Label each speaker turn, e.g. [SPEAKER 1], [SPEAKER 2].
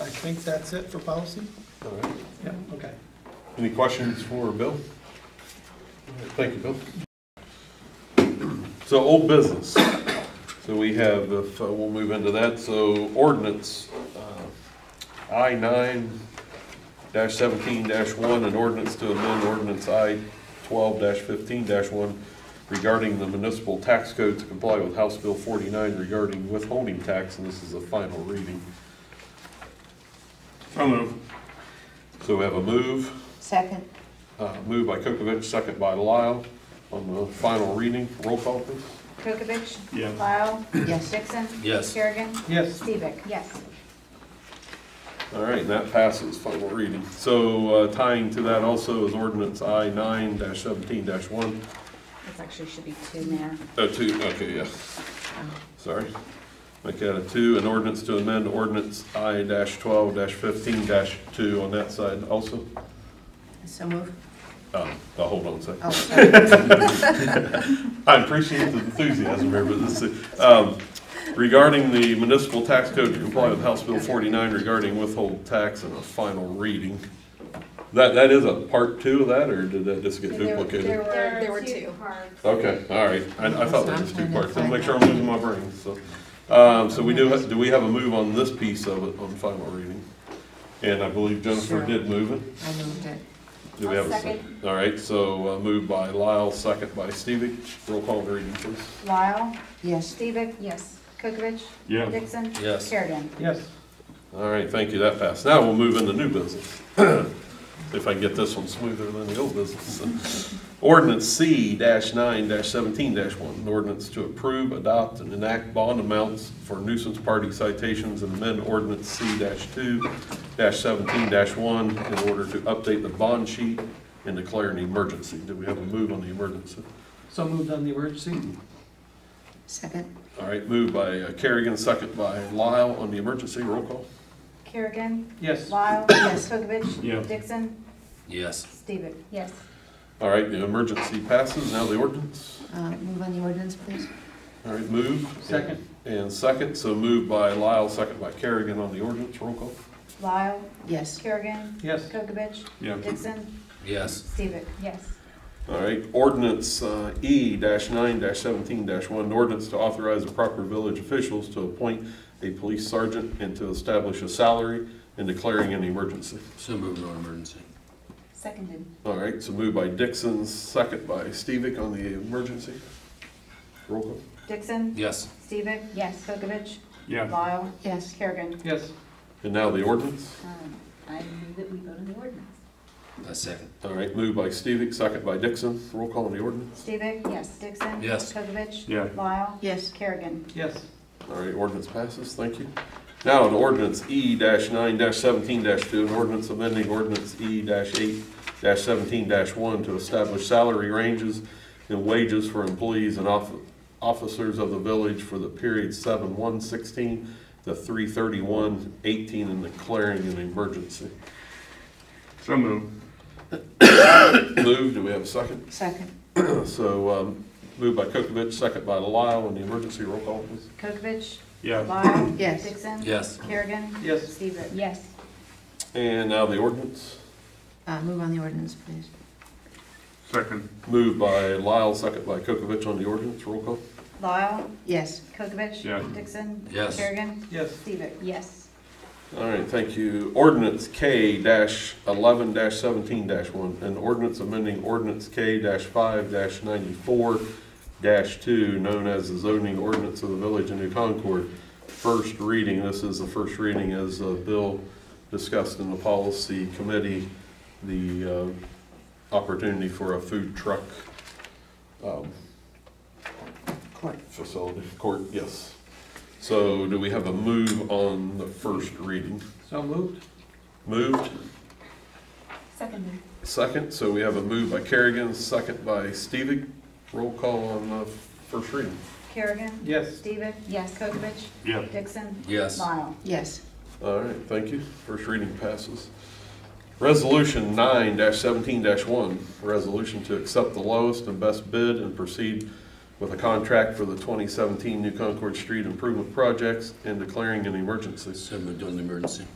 [SPEAKER 1] I think that's it for policy?
[SPEAKER 2] All right.
[SPEAKER 1] Yeah, okay.
[SPEAKER 2] Any questions for Bill? Thank you, Bill. So old business. So we have, if, uh, we'll move into that, so ordinance, uh, I nine dash seventeen dash one, an ordinance to amend ordinance I twelve dash fifteen dash one regarding the municipal tax code to comply with House Bill forty-nine regarding withholding tax, and this is a final reading.
[SPEAKER 3] So moved.
[SPEAKER 2] So we have a move.
[SPEAKER 4] Second,
[SPEAKER 2] Uh, Moved by Kokavich, second by Lyle, on the final reading, roll call please.
[SPEAKER 5] Kokavich?
[SPEAKER 3] Yes.
[SPEAKER 5] Lyle?
[SPEAKER 4] yes.
[SPEAKER 5] Dixon?
[SPEAKER 6] Yes.
[SPEAKER 5] Kerrigan?
[SPEAKER 1] Yes,
[SPEAKER 5] Stevic? Yes.
[SPEAKER 2] All right, and that passes, final reading. So uh, tying to that also is ordinance I nine dash seventeen dash one,
[SPEAKER 5] This actually should be two, Mayor.
[SPEAKER 2] oh, two, okay, yes, sorry. Make that a two, an ordinance to amend ordinance I dash twelve dash fifteen dash two on that side also.
[SPEAKER 4] So move.
[SPEAKER 2] Uh, now, hold on a second.
[SPEAKER 4] Oh, sorry.
[SPEAKER 2] I appreciate the enthusiasm here, but this, um, regarding the municipal tax code to comply with House Bill forty-nine regarding withhold tax and a final reading. That, that is a part two of that, or did that just get
[SPEAKER 5] There were- There
[SPEAKER 2] duplicated?
[SPEAKER 5] were, there were two.
[SPEAKER 7] parts.
[SPEAKER 2] Okay, all right, I, I thought there was two parts, I'll make sure I'm losing my brain, so. Um, so we do, have- do we have a move on this piece of it, on final reading? And I believe Jennifer
[SPEAKER 4] Sure.
[SPEAKER 2] did move it.
[SPEAKER 4] I moved it.
[SPEAKER 2] Do we have a
[SPEAKER 5] I'll
[SPEAKER 2] second? All right, so uh, moved by Lyle, second by Stevie, roll call and reading please.
[SPEAKER 5] Lyle?
[SPEAKER 4] Yes.
[SPEAKER 5] Stevic? Yes. Kokavich?
[SPEAKER 3] Yes.
[SPEAKER 5] Dixon?
[SPEAKER 6] Yes.
[SPEAKER 5] Kerrigan?
[SPEAKER 1] yes.
[SPEAKER 2] All right, thank you, that passed. Now we'll move into new business. If I can get this one smoother than the old business. Ordinance C nine seventeen one, an ordinance to approve, adopt, and enact bond amounts for nuisance party citations and amend ordinance C two seventeen one in order to update the bond sheet and declare an emergency. Do we have a move on the emergency?
[SPEAKER 1] So moved on the emergency?
[SPEAKER 4] Second,
[SPEAKER 2] All right, moved by uh, Kerrigan, second by Lyle on the emergency, roll call.
[SPEAKER 5] Kerrigan?
[SPEAKER 1] Yes.
[SPEAKER 5] Lyle? Yes. Kokavich?
[SPEAKER 3] Yes.
[SPEAKER 5] Dixon?
[SPEAKER 6] Yes.
[SPEAKER 5] Stevic? Yes.
[SPEAKER 2] All right, the emergency passes, now the ordinance.
[SPEAKER 4] uh, move on the ordinance, please.
[SPEAKER 2] All right, move.
[SPEAKER 1] Second.
[SPEAKER 2] And second, so moved by Lyle, second by Kerrigan on the ordinance, roll call.
[SPEAKER 5] Lyle?
[SPEAKER 4] Yes.
[SPEAKER 5] Kerrigan?
[SPEAKER 1] Yes.
[SPEAKER 5] Kokavich?
[SPEAKER 3] Yes.
[SPEAKER 5] Dixon?
[SPEAKER 6] Yes.
[SPEAKER 5] Stevic? Yes.
[SPEAKER 2] All right, ordinance uh, E nine seventeen one, an ordinance to authorize the proper village officials to appoint a police sergeant and to establish a salary and declaring an emergency.
[SPEAKER 6] So moved on emergency.
[SPEAKER 5] Seconded.
[SPEAKER 2] All right, so moved by Dixon, second by Stevic on the emergency. Roll call.
[SPEAKER 5] Dixon?
[SPEAKER 6] Yes.
[SPEAKER 5] Stevic? Yes. Kokavich?
[SPEAKER 3] Yes.
[SPEAKER 5] Lyle?
[SPEAKER 4] Yes.
[SPEAKER 5] Kerrigan?
[SPEAKER 1] Yes,
[SPEAKER 2] And now the ordinance.
[SPEAKER 5] Um, I move that we vote on the ordinance.
[SPEAKER 6] A second.
[SPEAKER 2] All right, moved by Stevic, second by Dixon, roll call on the ordinance.
[SPEAKER 5] Stevic? Yes. Dixon?
[SPEAKER 6] Yes.
[SPEAKER 5] Kokavich?
[SPEAKER 3] Yeah.
[SPEAKER 5] Lyle?
[SPEAKER 4] Yes.
[SPEAKER 5] Kerrigan?
[SPEAKER 1] yes.
[SPEAKER 2] All right, ordinance passes, thank you. Now, an ordinance E nine seventeen two, an ordinance amending ordinance E eight seventeen one to establish salary ranges and wages for employees and off- officers of the village for the period seven one sixteen to three thirty-one eighteen and declaring an emergency.
[SPEAKER 3] So moved.
[SPEAKER 2] Move, do we have a second?
[SPEAKER 4] Second,
[SPEAKER 2] So, um, moved by Kokavich, second by Lyle, on the emergency roll call, please.
[SPEAKER 5] Kokavich?
[SPEAKER 3] Yes.
[SPEAKER 5] Lyle?
[SPEAKER 4] Yes.
[SPEAKER 5] Dixon?
[SPEAKER 6] Yes.
[SPEAKER 5] Kerrigan?
[SPEAKER 1] Yes.
[SPEAKER 5] Stevic? Yes.
[SPEAKER 2] And now the ordinance.
[SPEAKER 4] uh, move on the ordinance, please.
[SPEAKER 3] Second.
[SPEAKER 2] Moved by Lyle, second by Kokavich on the ordinance, roll call.
[SPEAKER 5] Lyle?
[SPEAKER 4] Yes.
[SPEAKER 5] Kokavich?
[SPEAKER 3] Yeah.
[SPEAKER 5] Dixon?
[SPEAKER 6] Yes.
[SPEAKER 5] Kerrigan?
[SPEAKER 1] Yes.
[SPEAKER 5] Stevic? Yes.
[SPEAKER 2] All right, thank you. Ordinance K dash eleven dash seventeen dash one, an ordinance amending ordinance K dash five dash ninety-four dash two, known as the zoning ordinance of the village of New Concord. First reading, this is the first reading as a bill discussed in the policy committee, the uh, opportunity for a food truck um,
[SPEAKER 4] Court.
[SPEAKER 2] facility, court, yes. So do we have a move on the first reading?
[SPEAKER 1] So moved?
[SPEAKER 2] Moved,
[SPEAKER 5] Seconded.
[SPEAKER 2] second, so we have a move by Kerrigan, second by Stevic. Roll call on the first reading.
[SPEAKER 5] Kerrigan?
[SPEAKER 1] Yes.
[SPEAKER 5] Stevic? Yes. Kokavich?
[SPEAKER 3] Yes.
[SPEAKER 5] Dixon?
[SPEAKER 6] Yes.
[SPEAKER 5] Lyle?
[SPEAKER 4] Yes.
[SPEAKER 2] All right, thank you. First reading passes. Resolution nine seventeen one, resolution to accept the lowest and best bid and proceed with a contract for the twenty seventeen New Concord Street Improvement Projects and declaring an emergency.
[SPEAKER 6] So moved on emergency.